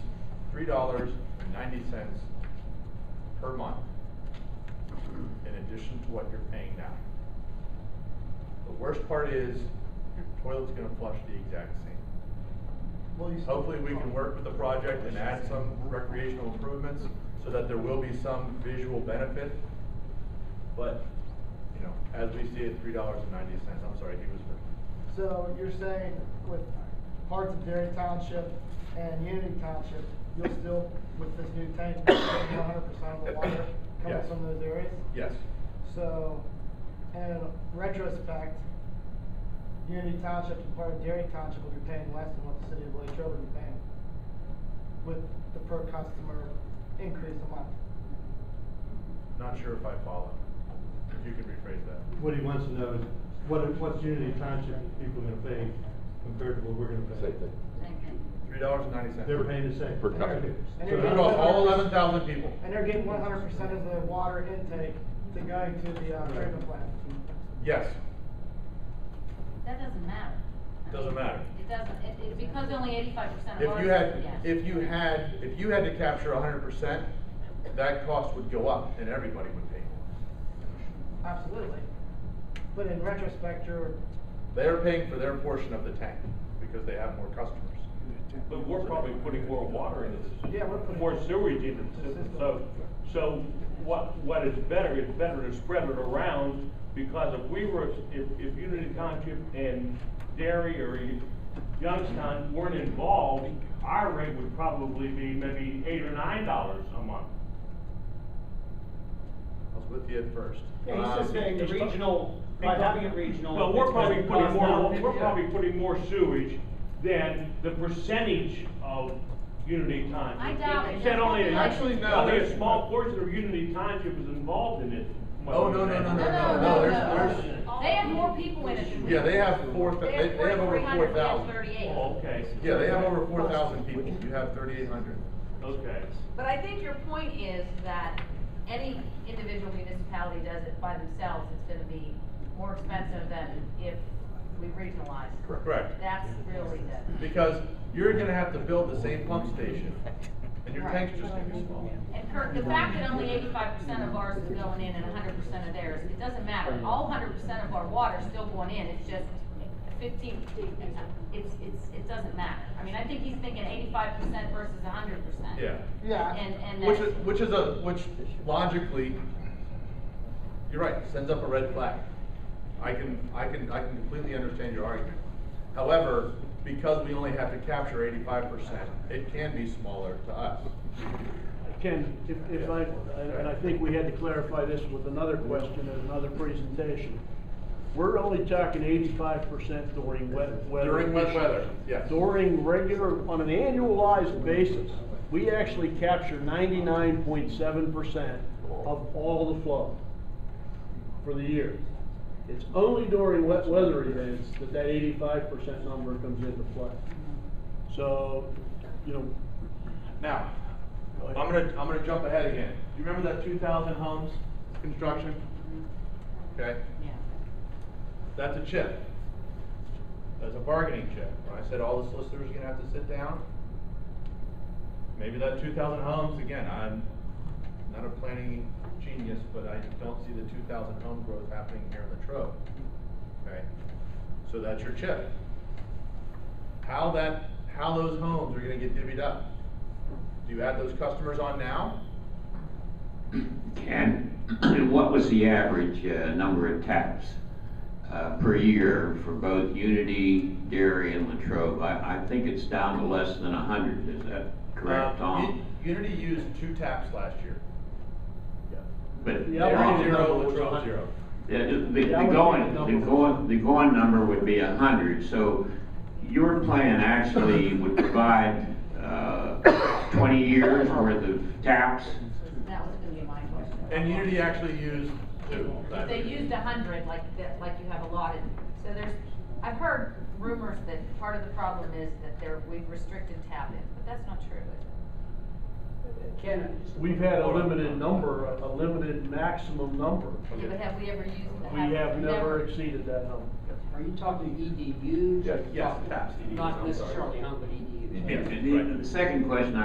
three dollars and ninety cents per month in addition to what you're paying now. The worst part is, your toilet's gonna flush the exact same. Hopefully, we can work with the project and add some recreational improvements so that there will be some visual benefit. But, you know, as we see it, three dollars and ninety cents, I'm sorry, he was, So you're saying with parts of Dairy Township and Unity Township, you'll still, with this new tank, one hundred percent of the water coming Yes. from those areas? yes, So, in retrospect, Unity Township and part of Dairy Township will be paying less than what the city of Latrobe will be paying with the per customer increase a month. not sure if I follow. If you can rephrase that. What he wants to know is, what, what's Unity Township people gonna pay compared to what we're gonna pay? Same thing. Three dollars and ninety cents. They're paying the same. Per customer. And So they're that's- getting Across all 100% eleven thousand people. And they're getting one hundred percent of the water intake to go to the uh, treatment plant. Yes, That doesn't matter. Doesn't matter. It doesn't, it, it's because only eighty-five percent of if ours. you had, yeah. if you had, if you had to capture hundred percent, that cost would go up and everybody would pay more. Absolutely. But in retrospect, you're, They're paying for their portion of the tank because they have more customers. But we're probably putting more water in this. Yeah, we're putting- More sewage into the system, so, so what, what is better, it's better to spread it around, because if we were, if, if Unity Township and Derry or Youngstown weren't involved, our rate would probably be maybe eight or nine dollars a month. I was with you at first. Um, Yeah, Um, he's just saying the regional, by having it regional. Well, we're it's probably gonna putting cost more, them- we're probably putting more sewage than the percentage of Unity Township. I doubt it. You said only, a- Actually, no, only there's- a small portion of Unity Township is involved in it. what Oh, we're no, no, saying. no, No, no, no, no, no, there's- no. They have more people in it than we. Yeah, they do. have four, They they, have they have over 4,300, four we have thousand. 38. Oh, okay. Yeah, they have over four thousand people, you have thirty-eight hundred. Okay. But I think your point is that any individual municipality does it by themselves, it's gonna be more expensive than if we regionalize. Correct. Correct. That's really the, Because you're gonna have to build the same pump station, and your tank's just gonna be small. And Kirk, the fact that only eighty-five percent of ours is going in and hundred percent of theirs, it doesn't matter. All hundred percent of our water's still going in, it's just fifteen, it's, it's, it doesn't matter. I mean, I think he's thinking eighty-five percent versus hundred percent. Yeah. yeah. And, and Which that's- is, which is a, which logically, you're right, sends up a red flag. I can, I can, I can completely understand your argument. However, because we only have to capture eighty-five percent, it can be smaller to us. Ken, if, if I, and I think we had to clarify this with another question and another presentation. We're only talking eighty-five percent during wet weather. During wet issues. weather, yes. During regular, on an annualized basis, we actually capture ninety-nine point seven percent of all the flow for the year. It's only during wet weather events that that eighty-five percent number comes into play. So, you know, Now, I'm gonna, I'm gonna jump ahead again. Do you remember that two thousand homes construction? Okay, Yeah. that's a chip. That's a bargaining chip. When I said all the solicitors are gonna have to sit down, maybe that two thousand homes, again, I'm not a planning genius, but I don't see the two thousand home growth happening here in Latrobe. Okay, so that's your chip. How that, how those homes are gonna get divvied up? Do you add those customers on now? And, and what was the average uh, number of taps uh, per year for both Unity, Dairy, and Latrobe? I, I think it's down to less than 100, is that correct, Uh, Um, Tom? Un- Unity used two taps last year. But The They're average on Tom, number uh, zero, was Latrobe 100. zero. the, the the The average going, number the was- going, the going number would be 100, so your plan actually would provide uh, 20 years worth of taps? That was gonna be my question. And Unity actually used two. if they used a hundred like that, like you have allotted, so there's, I've heard rumors that part of the problem is that there, we've restricted tap-in, but that's not true, is it? Ken, We've had a limited number, a a limited maximum number. Yeah, but have we ever used the We hundred? have never exceeded that number. are you talking EDUs? Yeah, yes, taps, EDUs, I'm Not sorry. necessarily E home, but EDUs. Yeah. And the- the second question